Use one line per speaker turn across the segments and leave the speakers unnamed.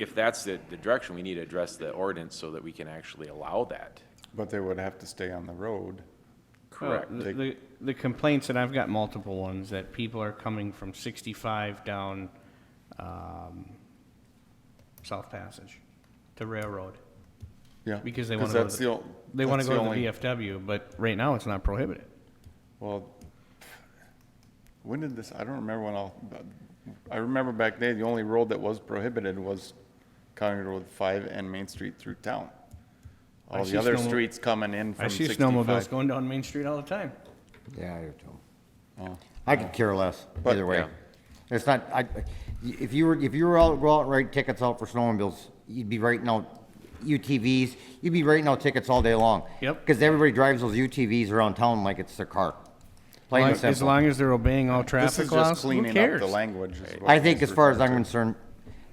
if that's the, the direction, we need to address the ordinance so that we can actually allow that.
But they would have to stay on the road.
Correct.
Well, The, the- the complaints, and I've got multiple ones, that people are coming from 65 down um, South Passage to Railroad.
Yeah.
Because they
'cause
wanna go to
that's
the-
the ol-
They want
that's
to go to
only-
the VFW, but right now it's not prohibited.
Well, when did this, I don't remember when all, I remember back then, the only road that was prohibited was County Road Five and Main Street through town.
I
All the
see
other
snowmo-
streets coming in
I
from
see snowmobiles
sixty-five.
going down Main Street all the time.
Yeah, I do too.
Oh.
I could care less
But-
either way.
Yeah.
It's not, I, if you were, if you were out, go out and write tickets out for snowmobiles, you'd be writing out UTVs, you'd be writing out tickets all day long.
Yep.
Cause everybody drives those UTVs around town like it's their car. Plain and
Like, As
simple.
long as they're obeying all
This is
traffic
just
laws, who
cleaning up
cares?
the language. is what
I think
this
as far as
refers
I'm concerned,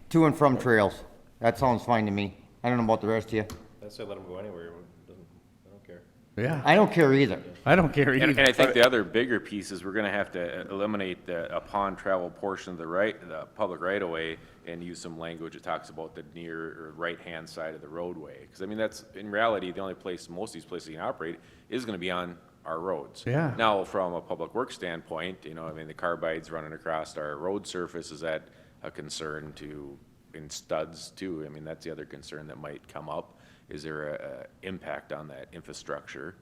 to and from trails, that sounds fine to me. I don't know about the rest of you.
I say let them go anywhere, it doesn't, I don't care.
Yeah,
I don't care either.
I don't care
And,
either.
and I think the other bigger piece is we're gonna have to uh, eliminate the upon travel portion of the right, the public right of way and use some language that talks about the near or right-hand side of the roadway. Cause I mean, that's, in reality, the only place, most of these places you can operate is gonna be on our roads.
Yeah.
Now, from a public works standpoint, you know, I mean, the carbides running across our road surface, is that a concern to, in studs too? I mean, that's the other concern that might come up. Is there a, a impact on that infrastructure?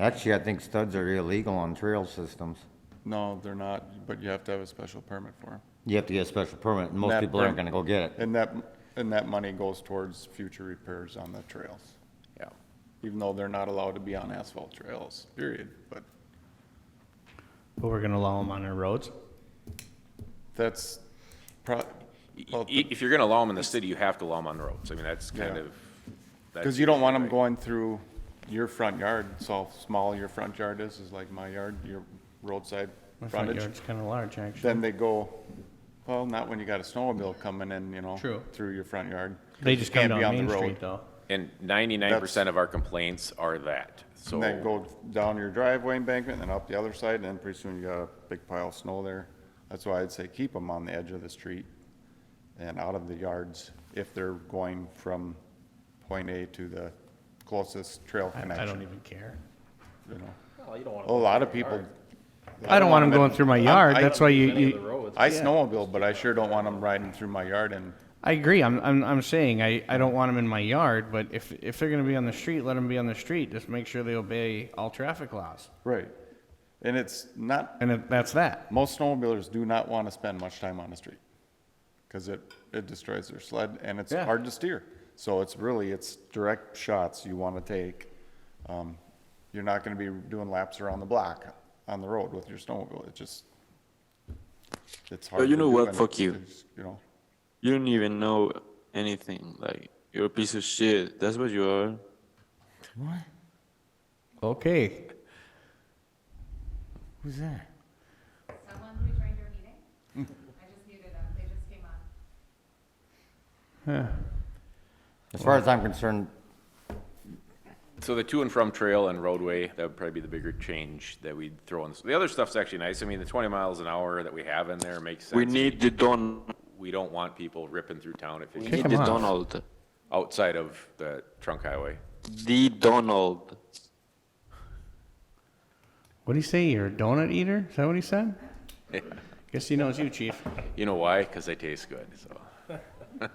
Actually, I think studs are illegal on trail systems.
to. No, they're not, but you have to have a special permit for them.
You have to get a special permit and most
That
people aren't
perm-
gonna go get it.
And that, and that money goes towards future repairs on the trails,
Yeah.
even though they're not allowed to be on asphalt trails, period. But
But we're gonna allow them on our roads.
that's pro, well,
I- If you're gonna allow them in the city, you have to allow them on the roads. I mean, that's kind
Yeah.
of. that's
Because you don't want them
usually
going through your front yard, so small your front yard is, is like my yard, your roadside
My front
frontage.
yard's kinda large, actually.
Then they go, well, not when you got a snowmobile coming in, you know.
True.
Through your front yard.
They just come
can't be on
down
the
Main Street,
road.
though.
right. And ninety-nine percent of our complaints are that, so.
And then go down your driveway embankment and up the other side, and then pretty soon you got a big pile of snow there. That's why I'd say keep them on the edge of the street and out of the yards if they're going from point A to the closest trail
I- I don't
connection,
even care.
you know.
Well, you don't want
A
them.
lot of people.
I don't want them going through my yard,
I-
that's why you,
Any of the
you,
roads,
I snowmobile, but I sure don't want them riding through my yard and,
I agree, I'm, I'm, I'm saying, I, I don't want them in my yard, but if, if they're gonna be on the street, let them be on the street, just make sure they obey all traffic laws.
right. And it's not,
And if- that's that.
most snowmobilers do not want to spend much time on the street. Cause it, it destroys their sled and it's
Yeah.
hard to steer. So it's really, it's direct shots you want to take. Um, You're not going to be doing laps around the block on the road with your snowmobile. It just, it's hard.
you
to
know
do
what?
and it's-
Fuck you.
it's, You know,
You don't even know anything. Like you're a piece of shit. That's what you are.
Okay.
Who's that?
Someone's rejoined your meeting? I just muted them, they just came on.
As far as I'm concerned,
So the to and from trail and roadway, that would probably be the bigger change that we'd throw in. The other stuff's actually nice. I mean, the twenty miles an hour that we have in there makes sense.
We need the Don.
We don't want people ripping through town at
We
fifty,
Kick
need
'em
the
off.
Donald.
outside of the trunk highway.
The Donald.
What'd he say, you're a donut eater? Is that what he said? Guess he knows you, chief.
You know why? Cause they taste good, so.
Okay, um,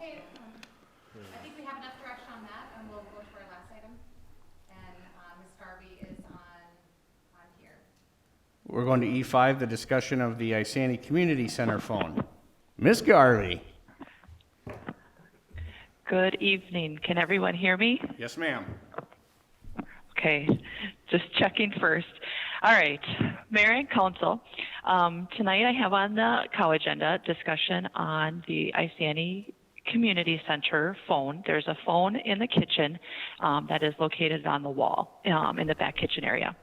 I think we have enough direction on that, and we'll go to our last item. And, uh Ms. Garvey is on, on here.
We're going to E5, the discussion of the Isani Community Center phone. Miss Garvey?
Good evening. Can everyone hear me?
Yes, ma'am.
Okay, just checking first. All right, Mayor and Council, um, tonight I have on the COW agenda discussion on the Isani Community Center phone. There's a phone in the kitchen um, that is located on the wall um, in the back kitchen area.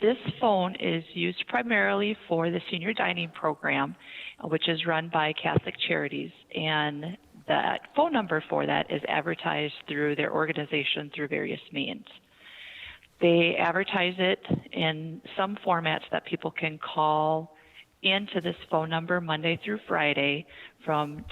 This phone is used primarily for the senior dining program, uh, which is run by Catholic Charities. And that phone number for that is advertised through their organization through various means. They advertise it in some formats that people can call into this phone number Monday through Friday from